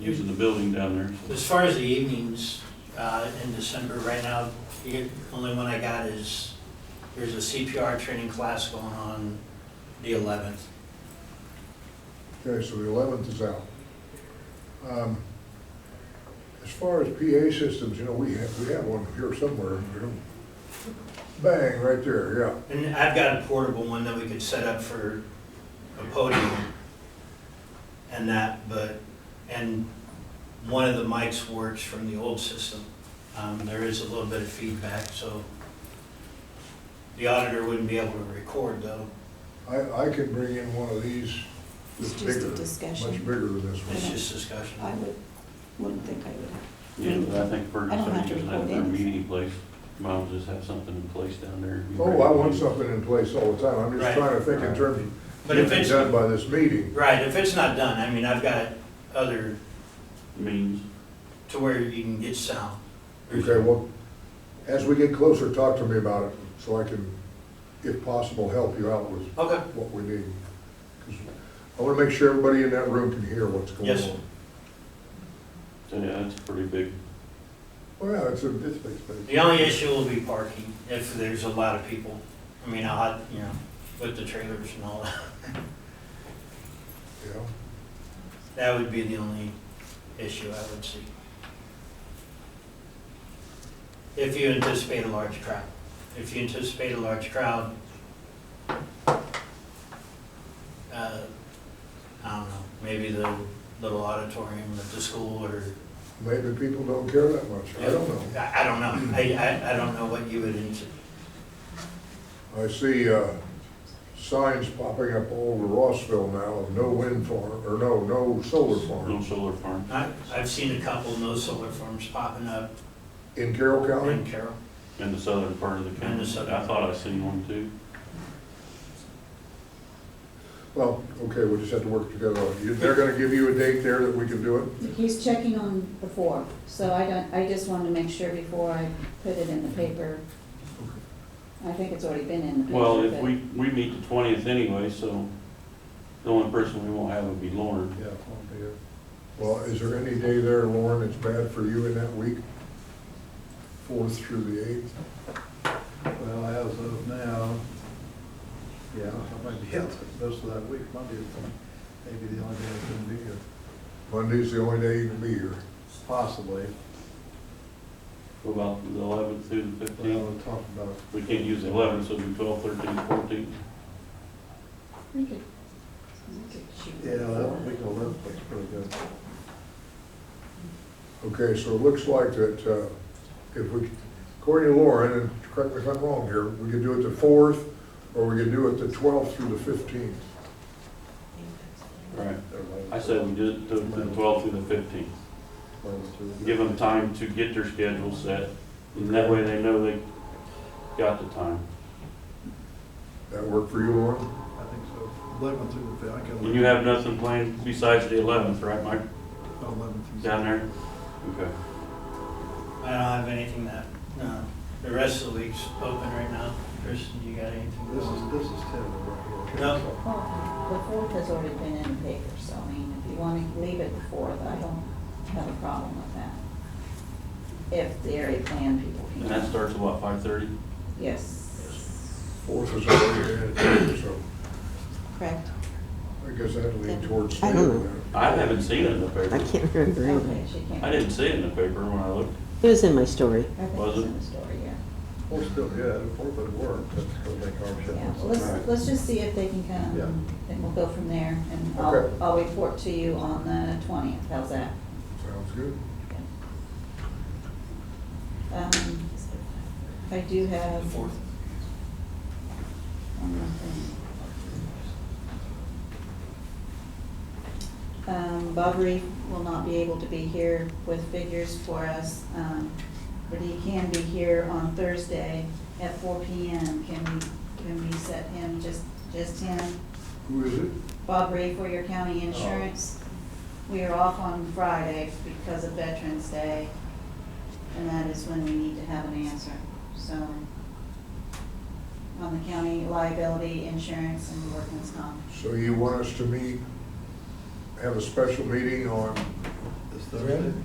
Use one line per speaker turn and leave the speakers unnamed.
using the building down there.
As far as the evenings uh, in December, right now, the only one I got is, there's a CPR training class going on the 11th.
Okay, so the eleventh is out. Um, As far as PA systems, you know, we have, we have one here somewhere, we don't, bang, right there, yeah.
And I've got a portable one that we could set up for a podium and that, but, and one of the mics works from the old system. Um, There is a little bit of feedback, so the auditor wouldn't be able to record though.
I, I could bring in one of these
It's
that's
just a
bigger,
discussion.
much bigger than this
It's
one.
just discussion.
I would, wouldn't think I would have.
Yeah, but I think
I don't
Ferguson
have to
using that
record
their
anything.
meeting place, might as well just have something in place down there.
Oh, I want something in place all the time, I'm
Right.
just trying to think in terms of
But if
getting
it's,
done by this meeting.
right, if it's not done, I mean, I've got other,
Means,
to where you can get sound.
Okay, well, as we get closer, talk to me about it, so I can, if possible, help you out with
Okay,
what we need. 'Cause I want to make sure everybody in that room can hear what's going on.
Yes.
so yeah, that's pretty big.
Well, yeah, it's a, it's big space.
the only issue will be parking, if there's a lot of people. I mean, I'll, have- you know, with the trailers and all that,
Yeah.
that would be the only issue I would see. If you anticipate a large crowd. If you anticipate a large crowd, uh, I don't know, maybe the little auditorium at the school or
Maybe people don't care that much, I don't know.
I, I don't know. I, I, I don't know what you would, int-
I see, uh, signs popping up all over Rossville now of no wind farm, or no, no solar
No
farm
solar farm.
I, I've seen a couple no solar farms popping up
in Carroll
in
County.
Carroll.
In the southern part of the
In the
county.
southern.
I thought I seen one too.
Well, okay, we'll just have to work together on it. You- They're gonna give you a date there that we can do it?
He's checking on before, so I don't, I just wanted to make sure before I put it in the paper. I think it's already been in the paper.
Well, if
but-
we, we meet the twentieth anyway, so the only person we won't have would be Lauren.
Yeah. Well, is there any day there, Lauren, that's bad for you in that week? Fourth through the eighth?
Well, as of now, yeah, I might be out most of that week, Monday is maybe the only day I can be here,
Monday's the only day you can be here.
possibly.
What About the eleventh through the
But I
fifteenth.
would talk about,
We can't use the eleventh, so it'll be twelve, thirteen, fourteen.
We could- we could shoot
yeah,
before.
that week of eleven looks pretty good.
Okay, so it looks like that uh, if we, according to Lauren, and correct me if I'm wrong here, we could do it the fourth, or we could do it the twelfth through the fifteenth.
Right.
Everybody-
I said we did it to the twelfth through the fifteenth.
Eleven through-
Give them time to get their schedule set, and that way they know they got the time.
That work for you, Lauren?
I think so, eleven through the fifth, I can.
And you have nothing planned besides the eleventh, right, Mike,
Oh, Eleven through.
down there? Okay.
I don't have anything that, no. The rest of the week's open right now. Kristen, you got anything?
This is, this is terrible right here.
No.
Well, The fourth has already been in the paper, so I mean, if you want to leave it the fourth, I don't have a problem with that. If the area plan people
And that
can,
starts at what, five thirty?
yes,
Fourth is already added, so
correct.
I guess that'd lean towards.
I don't know.
I haven't seen it in the
I
paper.
can't remember
Okay,
either.
she can't.
I didn't see it in the paper when I looked.
It was in my story.
I think
Was
it's
it?
in the story, yeah.
Well, still, yeah, the fourth would work, but still make our
Yeah,
schedule.
well, let's, let's just see if they can
Yeah.
come, and we'll go from there, and
Okay.
I'll, I'll report to you on the twentieth, how's that?
Sounds good.
Um, I do
The
have
fourth.
one more thing. Um, Bob Reef will not be able to be here with figures for us, um, but he can be here on Thursday at four P M. Can we, can we set him, just, just him?
Who is it?
Bob Ray for your county insurance. We are off on Friday because of Veterans Day, and that is when we need to have an answer, so. On the county liability insurance and workman's comp.
So you want us to meet, have a special meeting on
The
Thursday?